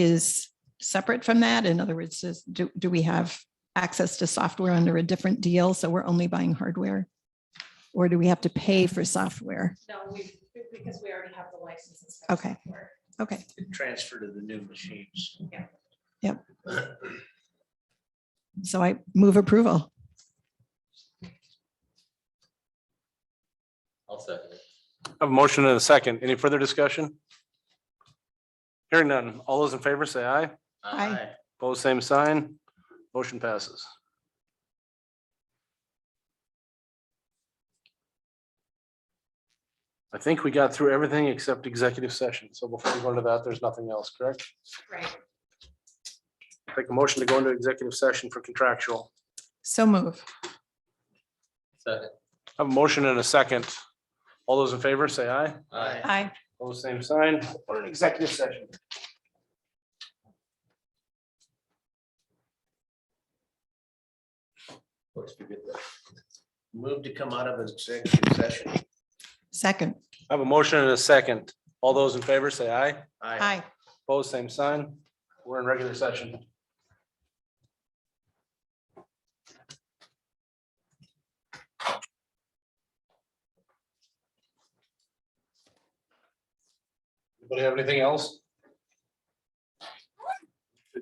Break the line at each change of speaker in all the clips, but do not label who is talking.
is separate from that? In other words, is, do, do we have access to software under a different deal? So we're only buying hardware? Or do we have to pay for software?
No, we, because we already have the licenses.
for Okay. Okay,
transfer to the new machines.
so I move approval.
I'll second it.
I have a motion and a second. Any further discussion? Hearing none. All those in favor say aye.
Aye.
Pose same sign. Motion passes. I think we got through everything except executive session. So before we go into that, there's nothing else, correct?
Right,
Take a motion to go into executive session for contractual.
So move.
Second.
I have a motion and a second. All those in favor say aye.
Aye.
Aye.
Pose same sign. We're in executive session.
Move to come out of executive session.
Second.
I have a motion and a second. All those in favor say aye.
Aye.
Opposed, same sign. We're in regular session. Anybody have anything else?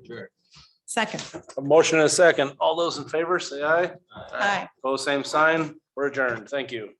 Sure.
Second.
A motion and a second. All those in favor, say aye.
Aye.
Opposed, same sign. We're adjourned. Thank you.